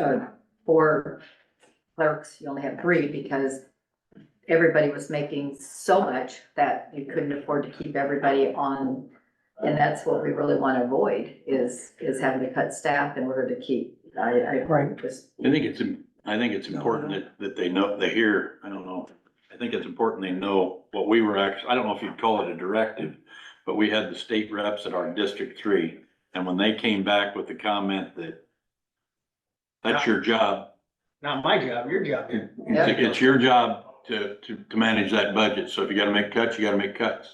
uh, four clerks, you only have three because everybody was making so much that you couldn't afford to keep everybody on. And that's what we really want to avoid is, is having to cut staff in order to keep, I, I. Right. Just, I think it's, im- I think it's important that, that they know, they hear, I don't know. I think it's important they know what we were actually, I don't know if you'd call it a directive, but we had the state reps at our District Three. And when they came back with the comment that that's your job, Not my job, your job. it- it's, it's your job to, to, to manage that budget. So if you gotta make cuts, you gotta make cuts.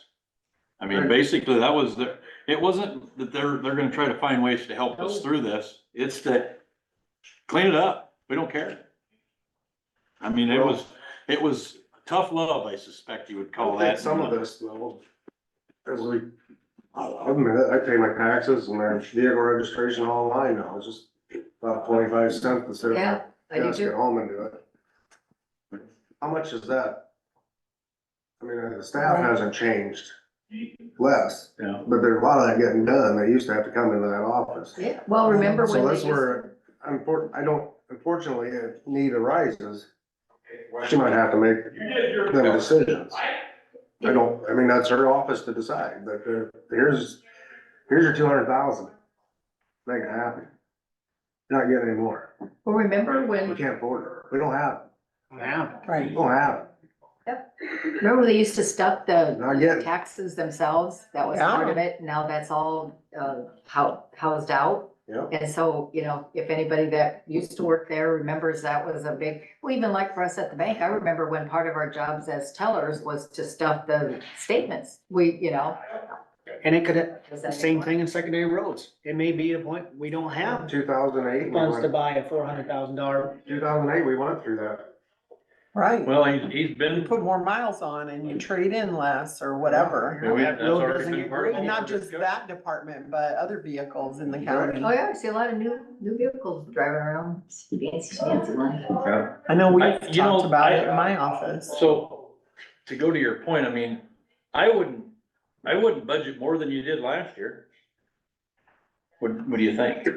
I mean, basically, that was the, it wasn't that they're, they're gonna try to find ways to help us through this. It's that clean it up. We don't care. I mean, it was, it was tough love, I suspect you would I call don't think that. Some of this though, as we, I don't know, I pay my taxes and my vehicle registration online now, it's just about twenty-five cents instead of. yeah, I do Just get too. home and do it. How much is that? I mean, the staff hasn't changed less, Yeah. but there's a lot of that getting done, they used to have to come into that office. Yeah, well, remember when So they that's used, where, unfortunately, I don't, unfortunately, if need arises, she might have to make them decisions. I don't, I mean, that's her office to decide, but uh, here's, here's your two hundred thousand. Make it happen. You're Not getting any more. well, remember We when, can't afford it. We don't have, Yeah, it. we right. don't have. it. remember they used to stuff the Not yet. taxes themselves? That was part of it. Now that's all, uh, hou- housed out. Yeah, And so, you know, if anybody that used to work there remembers that was a big, well, even like for us at the bank, I remember when part of our jobs as tellers was to stuff the statements. We, you know. And it could, does the that same make- thing in secondary roads. It may be a point, we don't have two thousand eight, funds to buy a four hundred thousand dollar. two thousand eight, we went through that. Right, Well, he's, he's you been. put more miles on and you trade in less or whatever. we- that's road already doesn't been get part of graded. And not just discussion. that department, but other vehicles in the county. Oh, yeah, I see a lot of new, new vehicles driving around, fancy, fancy money. Yeah. I know I- we've you know, talked about it I- in my office. So, to go to your point, I mean, I wouldn't, I wouldn't budget more than you did last year. What, what do you think?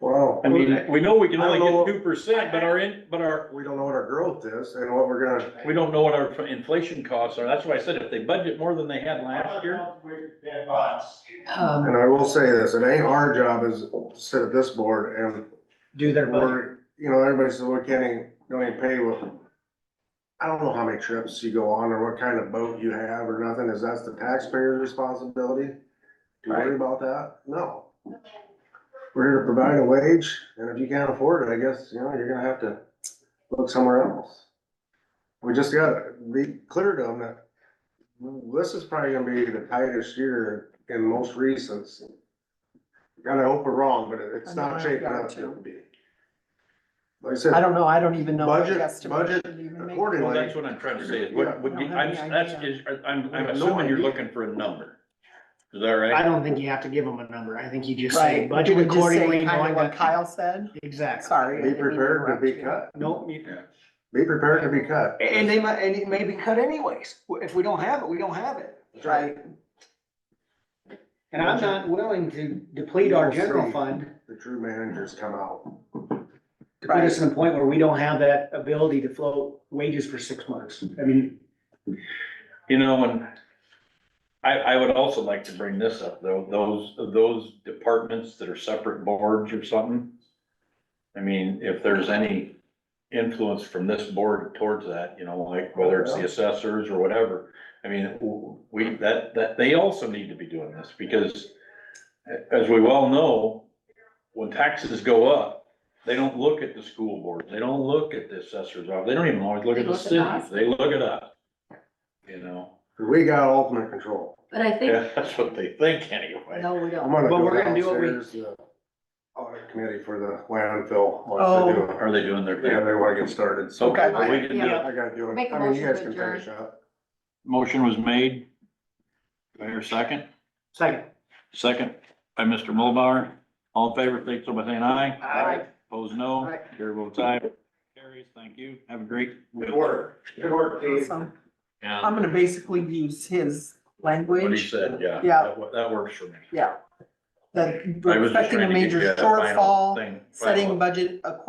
Well, I mean, we know we can only I don't know. get two percent, but our, in- but our, we don't know what our growth is and what we're gonna, we don't know what our inflation costs are. That's why I said if they budget more than they had last year. Um, and I will say this, it ain't our job is to sit at this board and Do their budget. Or, you know, everybody says, well, can't even, don't even pay what. I don't know how many trips you go on or what kind of boat you have or nothing, is that the taxpayer's responsibility? To worry about that? No. We're here to provide a wage, and if you can't afford it, I guess, you know, you're gonna have to look somewhere else. We just gotta be clear to them that this is probably gonna be the tightest year in most recent. And I hope we're wrong, but it's not shaping up to be. Like I said. I don't know, I don't even know. what Budget- the estimate budget should even make. Well, Accordingly, that's what I'm trying to say is what, what, Yeah, I don't have I'm, any that's, idea. is, I'm, I I'm have no assuming you're idea. looking for a number. Is that right? I don't think you have to give them a number. I think you just say Right, you budget would just accordingly. say kind knowing of what that- Kyle said, Exactly. sorry. I be didn't mean to prepared to be interrupt you. cut, Nope. you- Yeah. be prepared to be cut. And they might, and it may be cut anyways. If we don't have it, we don't have it. Right, And I'm not willing to deplete our general fund The true managers come out. to put us in a point where we don't have that ability to float wages for six months. I mean, You know, and I, I would also like to bring this up, though, those, those departments that are separate boards or something. I mean, if there's any influence from this board towards that, you know, like whether it's the assessors or whatever. I mean, w- we, that, that, they also need to be doing this, because as we well know, when taxes go up, they don't look at the school board, they don't look at the assessors, office, they don't even always look at They the look at us. cities, they look at us. You know? We got ultimate control. But I Yeah, think, that's what they think anyway. no, we I'm don't. gonna But go we're gonna do what we- downstairs, the audit committee for the landfill. Oh. wants to do it. Are they doing their Yeah, thing? they wanna get started, so. Okay, Okay. well, we can do it. I gotta do Make it. a I mean, you motion guys to can adjourn. finish up. Motion was made. Do I hear a second? second. Second by Mr. Mulbauer. All in favor, please, so by saying aye. Aye. Opposed, no. Aye. Chair votes aye. Carries, thank you. Have a great. Good work. Good work, Dave. awesome. I'm Yeah, gonna basically use his what he language. said, yeah. Yeah. That wo- That works for me. Yeah. That I we're was just expecting a trying to get major you that final shortfall, thing, final- setting budget accordingly